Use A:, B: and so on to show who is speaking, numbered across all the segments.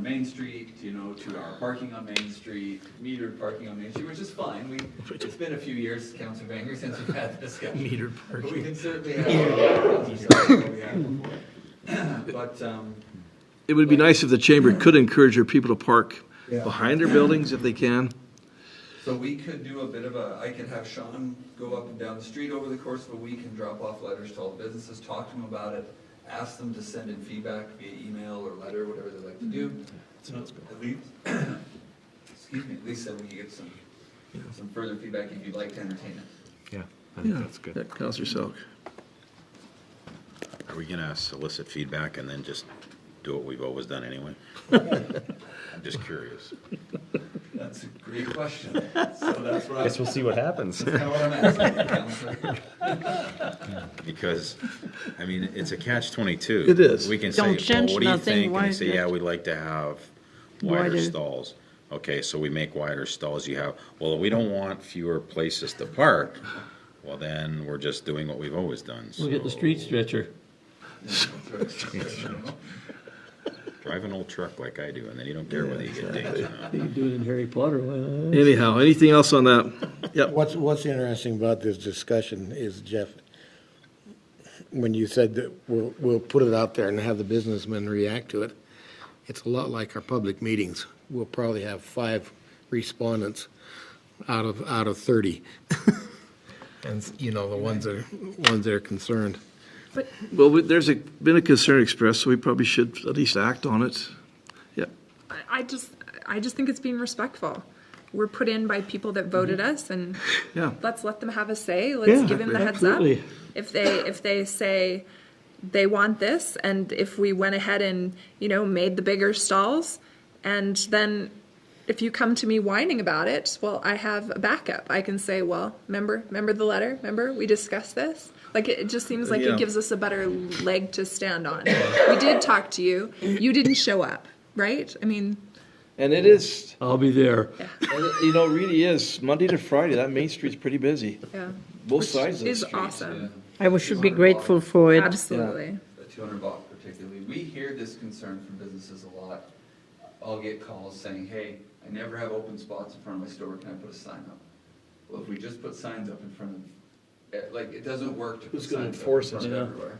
A: Main Street, you know, to our parking on Main Street, metered parking on Main Street, which is fine. We, it's been a few years, Councilor Banger, since we've had the discussion.
B: Metered
A: But we
B: parking.
A: can certainly have. But, um,
C: It would be nice if the chamber could encourage their people to park behind their buildings if they can.
A: so we could do a bit of a, I could have Sean go up and down the street over the course of a week and drop off letters to all the businesses, talk to them about it, ask them to send in feedback via email or letter, whatever they like to do. So at least, excuse me, at least then we can get some, some further feedback if you'd like to entertain it.
B: Yeah, I
C: Yeah,
B: think that's good.
C: Yeah, Counselor Selk.
D: Are we gonna solicit feedback and then just do what we've always done anyway? I'm just curious.
A: That's a great question. So that's what I,
B: Guess
A: that's
B: we'll see what happens.
A: kind of what I'm asking, Counselor.
D: Because, I mean, it's a catch twenty-two.
C: It is.
D: We can say, well,
E: Don't change
D: what do you
E: nothing,
D: think? And
E: why-
D: they say, yeah, we'd like to have wider
E: Wider.
D: stalls. Okay, so we make wider stalls. You have, well, we don't want fewer places to park. Well, then we're just doing what we've always done.
F: We'll get the
D: So
F: street stretcher.
D: Drive an old truck like I do and then you don't care whether you get dinged or not.
F: You can do it in Harry Potter. why not?
C: Anyhow, anything else on that? Yep.
G: What's, what's interesting about this discussion is, Jeff, when you said that we'll, we'll put it out there and have the businessmen react to it, it's a lot like our public meetings. We'll probably have five respondents out of, out of 30. And, you know, the ones that are, ones that are concerned.
C: Well, we- there's a, been a concern expressed, so we probably should at least act on it. Yeah,
H: I- I just I just think it's being respectful. We're put in by people that voted us, and
C: yeah.
H: let's let them have a say. Let's give them the heads
F: absolutely.
H: up. If they if they say they want this, and if we went ahead and you know made the bigger stalls, and then if you come to me whining about it, well, I have a backup. I can say, well, remember remember the letter. Remember we discussed this. Like it, it just seems like
C: Yeah.
H: it gives us a better leg to stand on. we did talk to you. You didn't show up, right? I mean.
C: And it is,
F: I'll be there.
C: you know, it really is, Monday to Friday, that Main Street's pretty busy,
H: Yeah.
C: both
H: Which
C: sides of the
H: is
C: street.
A: Yeah.
H: awesome.
E: I was- should be grateful for it.
H: Absolutely.
A: the 200 block particularly, we hear this concern from businesses a lot. I'll get calls saying, hey, I never have open spots in front of my store, can I put a sign up? Well, if we just put signs up in front of, eh, like, it doesn't work to put
B: Who's gonna
A: signs up in
B: enforce it,
A: front of
B: yeah.
A: everywhere.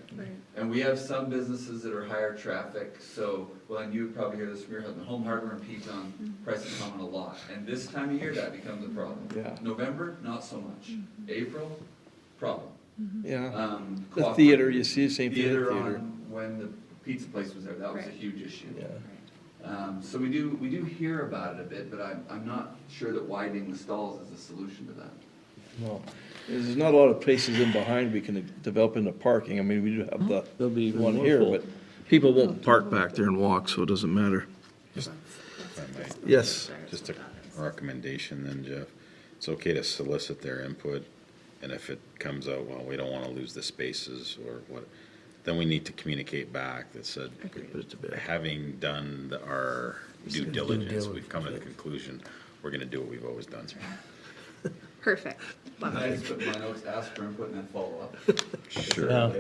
A: And we have some businesses that are higher traffic, so, well, and you probably hear this from your husband, Home Hardware and Peton, prices come on a lot. And this time of year, that becomes a problem.
C: Yeah.
A: November, not so much. April, problem.
C: Yeah,
A: Um,
C: Uh-huh. the
A: cooperative-
C: theater, you see the same thing at the
A: theater
C: theater.
A: on when the pizza place was there, that was a
H: Right.
A: huge issue.
C: Yeah.
A: Um, so we do, we do hear about it a bit, but I'm, I'm not sure that widening the stalls is a solution to that.
C: No, there's not a lot of places in behind we can develop into parking. I mean, we do have
F: They'll be
C: the
F: even
C: one
F: more
C: here,
F: full.
C: but people won't park back there and walk, so it doesn't matter. Yes.
D: Just a recommendation then, Jeff. It's okay to solicit their input, and if it comes out, well, we don't want to lose the spaces or what, then we need to communicate back that said,
C: Put it to bed.
D: having done the- our due diligence, we've come to the conclusion, we're going to do what we've always done.
H: Perfect.
A: Can I just put in my notes, ask for input and then follow up?
B: Yeah.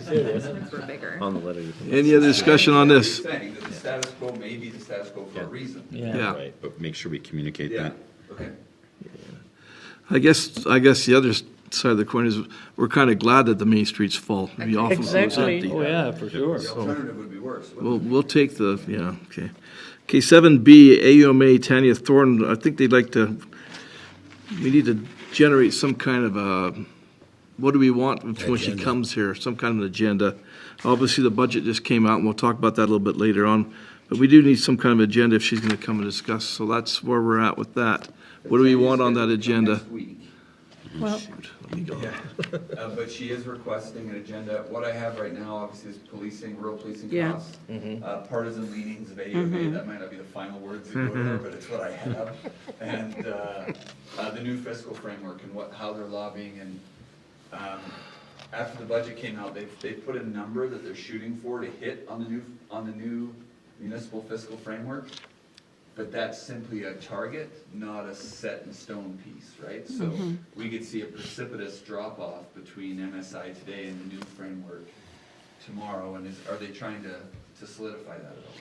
H: Since we're bigger.
B: On the letter. you can-
C: Any other discussion on this?
A: You're Saying that the status quo may be the status quo for a reason.
F: Yeah.
C: Yeah,
D: Right, but make sure we communicate that.
A: Okay.
C: I guess, I guess the other side of the coin is, we're kind of glad that the Main Street's full. It'd be awful if it was
E: Exactly.
C: empty.
F: Oh, yeah, for sure.
A: The alternative would be worse. wouldn't
C: We'll, we'll take the, yeah, okay. Okay, seven B, AUMA Tanya Thornton, I think they'd like to, we need to generate some kind of a, what do we want when she comes here, some kind of an agenda. Obviously, the budget just came out, and we'll talk about that a little bit later on, but we do need some kind of agenda if she's gonna come and discuss, so that's where we're at with that. What do we want on that agenda?
A: Next week.
E: Well,
A: Uh, but she is requesting an agenda. What I have right now, obviously, is policing, rural policing
E: Yeah. Mm-hmm.
A: costs,
C: Mm-hmm.
A: uh, partisan leanings of AUMA. That might not be the final words that go there, but it's what I have.
C: Mm-hmm.
A: And, uh, uh, the new fiscal framework and what, how they're lobbying and, um, after the budget came out, they've, they put a number that they're shooting for to hit on the new, on the new municipal fiscal framework. But that's simply a target, not a set in stone piece, right? So we could see a precipitous drop off between MSI today and the new framework tomorrow, and is, are they trying to, to solidify that at all?